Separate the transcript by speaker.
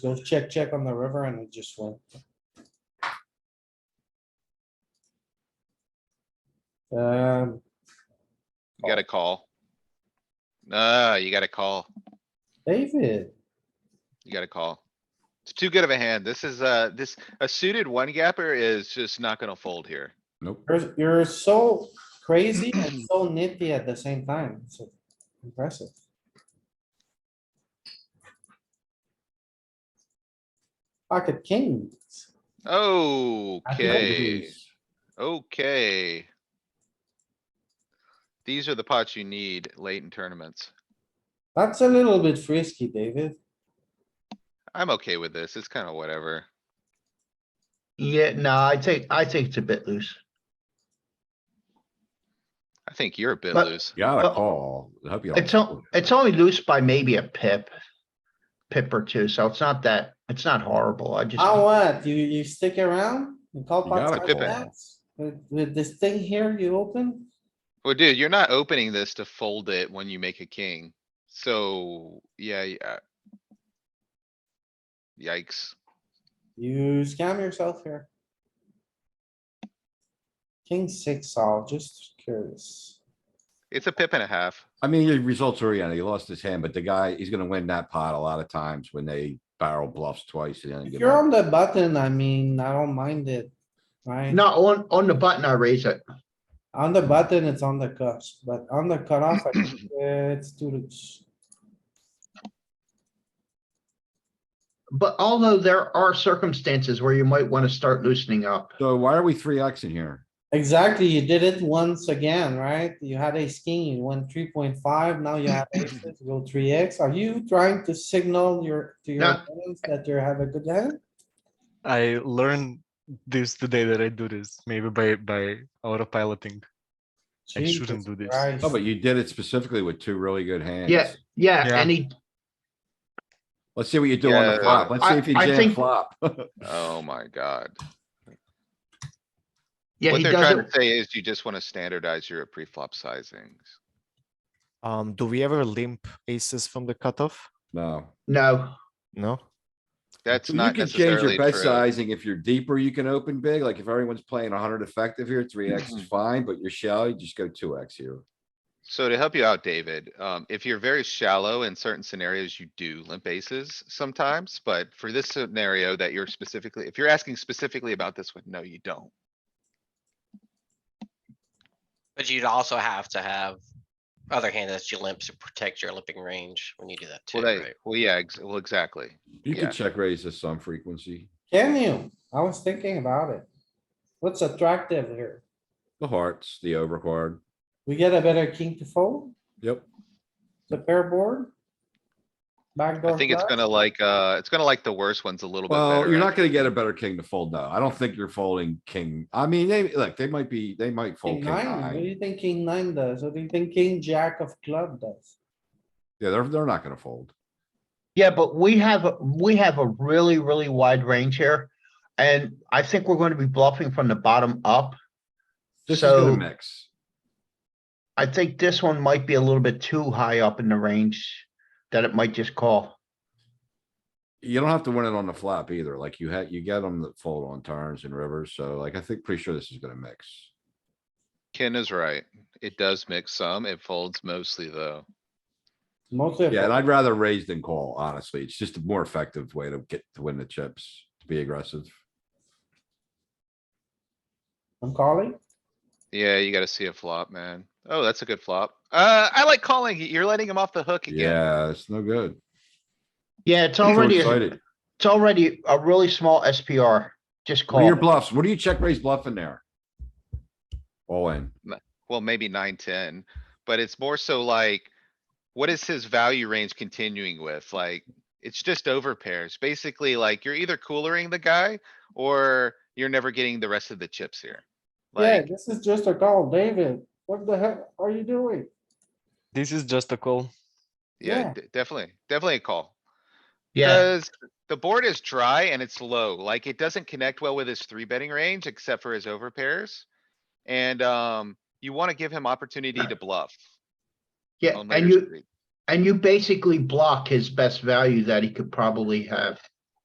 Speaker 1: goes check, check on the river and it just went. Um,
Speaker 2: You gotta call. Ah, you gotta call.
Speaker 1: David,
Speaker 2: You gotta call. It's too good of a hand. This is, uh, this, a suited one gapper is just not gonna fold here.
Speaker 3: Nope.
Speaker 1: you're, you're so crazy and so nitty at the same time. It's impressive. Pocket kings.
Speaker 2: Okay, okay. These are the pots you need late in tournaments.
Speaker 1: That's a little bit frisky, David.
Speaker 2: I'm okay with this. It's kinda whatever.
Speaker 4: Yeah, no, I think, I think it's a bit loose.
Speaker 2: I think you're a bit
Speaker 4: But-
Speaker 2: loose.
Speaker 3: Gotta
Speaker 4: Well,
Speaker 3: call. I hope you don't
Speaker 4: It's, o-
Speaker 3: fold.
Speaker 4: it's only loose by maybe a pip. Pip or two, so it's not that, it's not horrible. I just,
Speaker 1: Oh, what? You, you stick around? You call
Speaker 3: You
Speaker 1: pots
Speaker 3: gotta
Speaker 1: like
Speaker 2: call.
Speaker 1: that? With, with this thing here you open?
Speaker 2: Well, dude, you're not opening this to fold it when you make a king. So, yeah, yeah. Yikes.
Speaker 1: You scam yourself here. King six all, just curious.
Speaker 2: It's a pip and a half.
Speaker 3: I mean, your results oriented. He lost his hand, but the guy, he's gonna win that pot a lot of times when they barrel bluffs twice. and then
Speaker 1: If
Speaker 3: give
Speaker 1: you're
Speaker 3: up.
Speaker 1: on the button, I mean, I don't mind it, right?
Speaker 4: no, on, on the button, I raise it.
Speaker 1: On the button, it's on the cusp, but on the cutoff, I think, uh, it's too loose.
Speaker 4: But although there are circumstances where you might wanna start loosening up.
Speaker 3: So why are we three X in here?
Speaker 1: Exactly, you did it once again, right? You had a king, you went three point five, now you have aces, you go three X. Are you trying to signal your, to your
Speaker 4: No.
Speaker 1: opponents that you have a good hand?
Speaker 5: I learned this the day that I do this, maybe by by autopiloting. I shouldn't
Speaker 1: Jesus
Speaker 5: do this.
Speaker 1: Christ.
Speaker 3: Oh, but you did it specifically with two really good hands.
Speaker 4: Yeah, yeah,
Speaker 5: Yeah.
Speaker 4: and he,
Speaker 3: Let's see what you do on the
Speaker 2: Yeah.
Speaker 3: flop. Let's see
Speaker 4: I-
Speaker 3: if you
Speaker 4: I
Speaker 3: jam
Speaker 4: think-
Speaker 3: flop.
Speaker 2: Oh my god.
Speaker 4: yeah,
Speaker 2: What
Speaker 4: he
Speaker 2: they're
Speaker 4: does
Speaker 2: trying to
Speaker 4: it.
Speaker 2: say is you just wanna standardize your pre-flop sizings.
Speaker 6: Um, do we ever limp aces from the cutoff?
Speaker 3: No.
Speaker 4: No,
Speaker 6: No.
Speaker 2: That's
Speaker 3: You
Speaker 2: not
Speaker 3: can change your
Speaker 2: necessarily
Speaker 3: bet
Speaker 2: true.
Speaker 3: sizing. If you're deeper, you can open big. Like if everyone's playing hundred effective here, three X is fine, but you're shallow, you just go two X here.
Speaker 2: So to help you out, David, um, if you're very shallow in certain scenarios, you do limp aces sometimes, but for this scenario that you're specifically, if you're asking specifically about this one, no, you don't.
Speaker 7: But you'd also have to have other hand that you limp to protect your limping range when you do that too,
Speaker 2: Well, they,
Speaker 7: right?
Speaker 2: well, yeah, ex- well, exactly.
Speaker 3: You
Speaker 2: Yeah.
Speaker 3: can check raise this some frequency,
Speaker 1: Can you? I was thinking about it. What's attractive here?
Speaker 3: the hearts, the overcard.
Speaker 1: We get a better king to fold,
Speaker 3: Yep.
Speaker 1: the pair board? Backdoor.
Speaker 2: I think it's
Speaker 1: flush?
Speaker 2: gonna like, uh, it's gonna like the worst ones a little bit
Speaker 3: Well, you're not
Speaker 2: better.
Speaker 3: gonna get a better king to fold though. I don't think you're folding king. I mean, they, look, they might be, they might fold
Speaker 1: King
Speaker 3: king
Speaker 1: nine, what do
Speaker 3: high.
Speaker 1: you think king nine does? What do you think king jack of club does?
Speaker 3: Yeah, they're, they're not gonna fold.
Speaker 4: yeah, but we have, a- we have a really, really wide range here. And I think we're gonna be bluffing from the bottom up.
Speaker 3: This is gonna
Speaker 4: So-
Speaker 3: mix.
Speaker 4: I think this one might be a little bit too high up in the range that it might just call.
Speaker 3: You don't have to win it on the flop either. Like you had, you get them that fold on turns and rivers. So like, I think pretty sure this is gonna mix.
Speaker 2: Ken is right. It does mix some. It folds mostly though.
Speaker 1: Mostly. a
Speaker 3: Yeah, and
Speaker 1: pair.
Speaker 3: I'd rather raise than call, honestly. It's just a more effective way to get, to win the chips, to be aggressive.
Speaker 1: I'm calling.
Speaker 2: Yeah, you gotta see a flop, man. Oh, that's a good flop. Uh, I like calling. You're letting him off the hook again.
Speaker 3: Yeah, it's no good.
Speaker 4: Yeah, it's
Speaker 3: I'm so
Speaker 4: already, a-
Speaker 3: excited.
Speaker 4: it's already a really small SPR. Just
Speaker 3: What are your
Speaker 4: call.
Speaker 3: bluffs? What do you check raise bluff in there? All in.
Speaker 2: Well, maybe nine, ten, but it's more so like, what is his value range continuing with? Like, it's just over pairs. Basically, like, you're either coolering the guy or you're never getting the rest of the chips here.
Speaker 1: Yeah,
Speaker 2: Like,
Speaker 1: this is just a call, David. What the heck are you doing?
Speaker 5: This is just a call.
Speaker 2: yeah,
Speaker 1: yeah.
Speaker 2: d- definitely, definitely a call.
Speaker 4: Yeah,
Speaker 2: Cause the board is dry and it's low, like it doesn't connect well with his three betting range except for his over pairs. And, um, you wanna give him opportunity to bluff.
Speaker 4: yeah,
Speaker 2: on later
Speaker 4: and you,
Speaker 2: street.
Speaker 4: and you basically block his best value that he could probably have.